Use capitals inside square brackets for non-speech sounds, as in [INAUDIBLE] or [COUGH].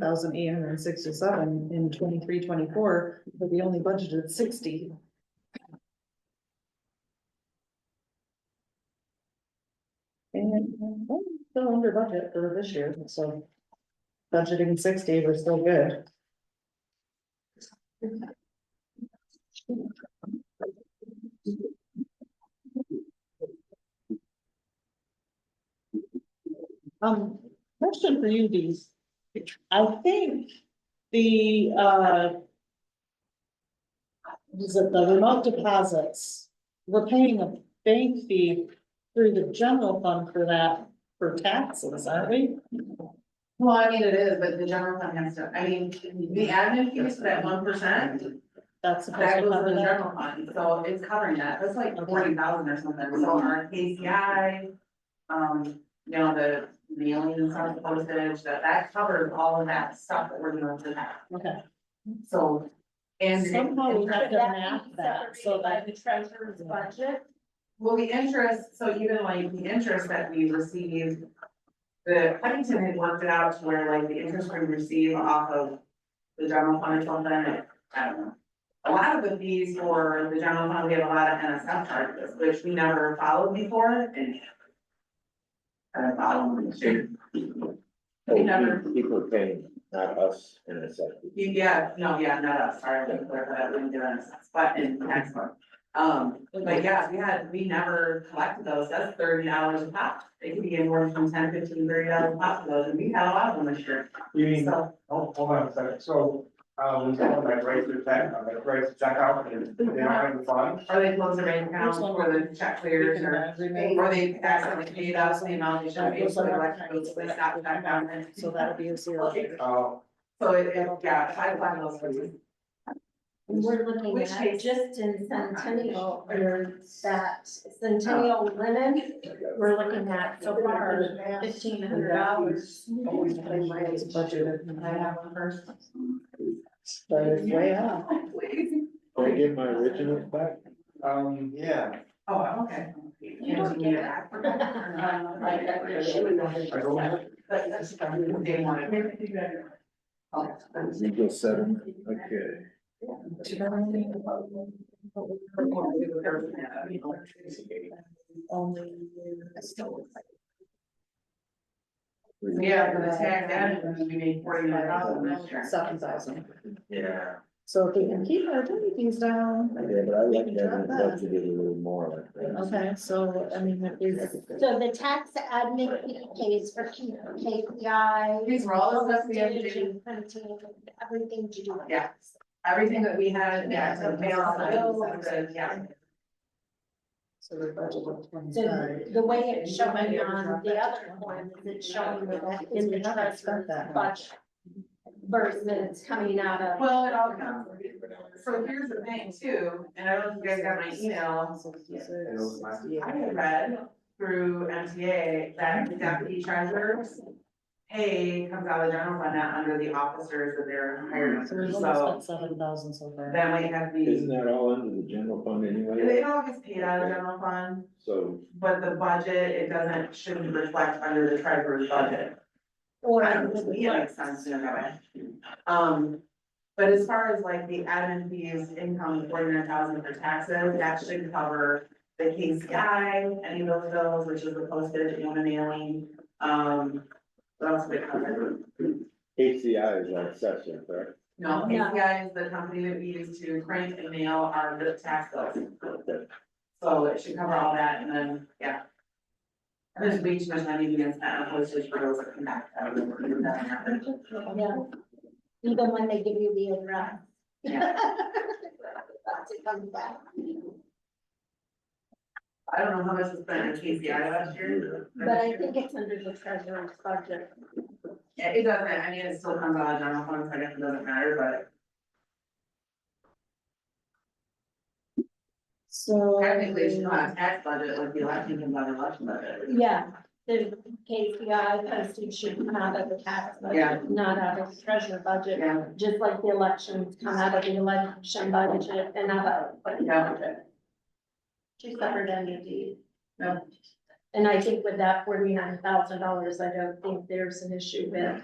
thousand eight hundred and sixty-seven in twenty-three, twenty-four, but we only budgeted sixty. And well, still under budget for this year, so budgeting sixty, we're still good. Um, question for you, Dees. I think the, uh. Is it the remote deposits? We're paying a bank fee through the general fund for that, for taxes, aren't we? Well, I mean, it is, but the general fund has to, I mean, the admin fees for that one percent, That's supposed that to goes to cover the that. general fund, so it's covering that, that's like forty thousand or something, so our KCI. Um, you know, the mailing and stuff, the postage, that, that covers all of that stuff that we're doing to that, Okay, so. And. somehow we have to That- map that so that. the treasurer's budget? Well, the interest, so even like the interest that we receive. The Huntington had worked it out to where like the interest we receive off of the general fund or something, I don't know. um, A lot of the fees for the general fund, we have a lot of NSF charges, which we never followed before and. Kind of followed this year. Oh, We never, People are paying, not us, in a second. yeah, no, yeah, not us, sorry, I'm clear, but I wouldn't do NSF, but in tax one. Um, but yeah, we had, we never collected those, that's thirty dollars a pop, they could be anywhere from ten, fifteen, thirty dollars a pop for those, and we had a lot of them this year, You mean, so. hold, hold on a second, so, um, I write the check, I write the check out, and they don't have the funds? Or they close the bank account Which one? for the check clears, or, or they accidentally paid us the amount they should have paid, so they left, it, so they stopped that down and- So that'll be a zero. Oh, So it, it, yeah, I find those things. We're looking Which at page? just in Centennial or that Oh. Centennial linen, we're looking at so far fifteen hundred dollars. Always pay my budgeted. I have one first. [LAUGHS] But it's way up. Can I get my original back? um, yeah, Oh, okay. You don't get it. [LAUGHS] I don't, But that's, they wanted. Oh, that's- You go seven, okay. Yeah, for the tax added, we made forty nine thousand this year. Seven thousand. Yeah. So if we can keep our duty fees down. Yeah, but I like that, I'd love to get a little more like that. Okay, so, I mean, if we. So the tax admin fee pays for K- KPI. These were all the stuff we had to do. diligent printing, Everything to do. with Yeah. this. Everything that we had, yeah, so mail, so, yeah. So the budget was So twenty-five. the way it's showing on the other one, is it's showing that in the We haven't spent treasurer's that much. budget versus coming out of. Well, it all comes, so here's the thing too, and I don't know if you guys got my email, I had read through MTA that the deputy treasurers. Pay comes out of the general fund, not under the officers that they're hired Mm, So we've under, only so spent seven thousand so far. that might have Isn't the, that all under the general fund anyway? it all gets paid out of the general fund. So, But the budget, it doesn't, shouldn't reflect under the treasurer's budget. Or. I don't know, it makes sense in that way. Um, but as far as like the admin fees, income forty-nine thousand for taxes, that should cover the KCI, any of those bills, which is the postage, you know, the mailing, um, what else would it cover? HCI is our session, correct? No, KCI is the company that we use to print and mail our the tax bills. So it should cover all that and then, yeah. And There's way too much money being spent on postage for those that come back. I don't know if you've done that. Yeah. Even when they give you the address. Yeah. That's it comes back. I don't know how much was spent on KCI last year. But I think it's under the treasurer's budget. Yeah, It doesn't, I mean, it still comes out of general fund, so I guess it doesn't matter, but So. technically, it's not a tax budget, like the election comes out of election budget. Yeah, the KPI posted should come out of the tax Yeah. budget, not out of the treasurer budget. Yeah, Just like the elections come out of the election budget and out of, Uh, but yeah, two separate entities. No. E And I think with that forty-nine thousand dollars, I don't think there's an issue with